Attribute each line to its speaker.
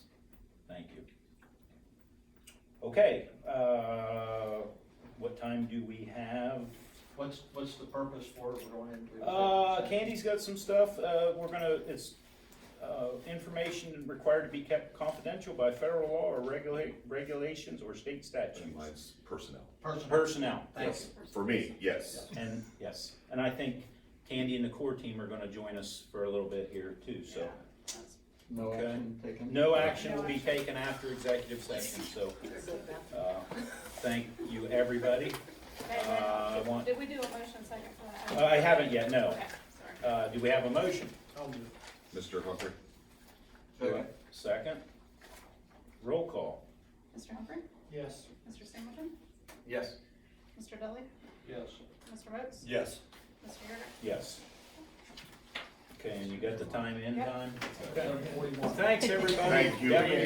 Speaker 1: Okay, uh, what time do we have?
Speaker 2: What's, what's the purpose for it we're going into?
Speaker 1: Uh, Candy's got some stuff, uh, we're gonna, it's, uh, information required to be kept confidential by federal law or regulate, regulations or state
Speaker 3: And
Speaker 1: statutes.
Speaker 3: mine's personnel.
Speaker 2: Personal,
Speaker 1: Personnel,
Speaker 2: thank
Speaker 3: Yes, For me, yes.
Speaker 1: and, yes, and I think Candy and the core team are gonna join us for a little bit here too, so.
Speaker 2: No
Speaker 1: Okay.
Speaker 2: action taken?
Speaker 1: No action will be taken after executive session, so, uh, thank you, everybody. Uh, I want-
Speaker 4: Did we do a motion second for
Speaker 1: Uh,
Speaker 4: that?
Speaker 1: I haven't yet, no.
Speaker 4: Okay, sorry.
Speaker 1: Uh, do we have a motion?
Speaker 2: I'll do it.
Speaker 3: Mr. Humphrey?
Speaker 2: Second.
Speaker 1: Second? Roll call.
Speaker 4: Mr. Humphrey?
Speaker 2: Yes.
Speaker 4: Mr. Singleton?
Speaker 3: Yes.
Speaker 4: Mr. Dudley?
Speaker 2: Yes.
Speaker 4: Mr. Rhodes?
Speaker 3: Yes.
Speaker 4: Mr. Yerga?
Speaker 1: Yes. Okay, and you got the time in
Speaker 4: Yep.
Speaker 1: time?
Speaker 2: Seven forty-one.
Speaker 1: Thanks, everybody.
Speaker 3: Thank you.
Speaker 1: Yep.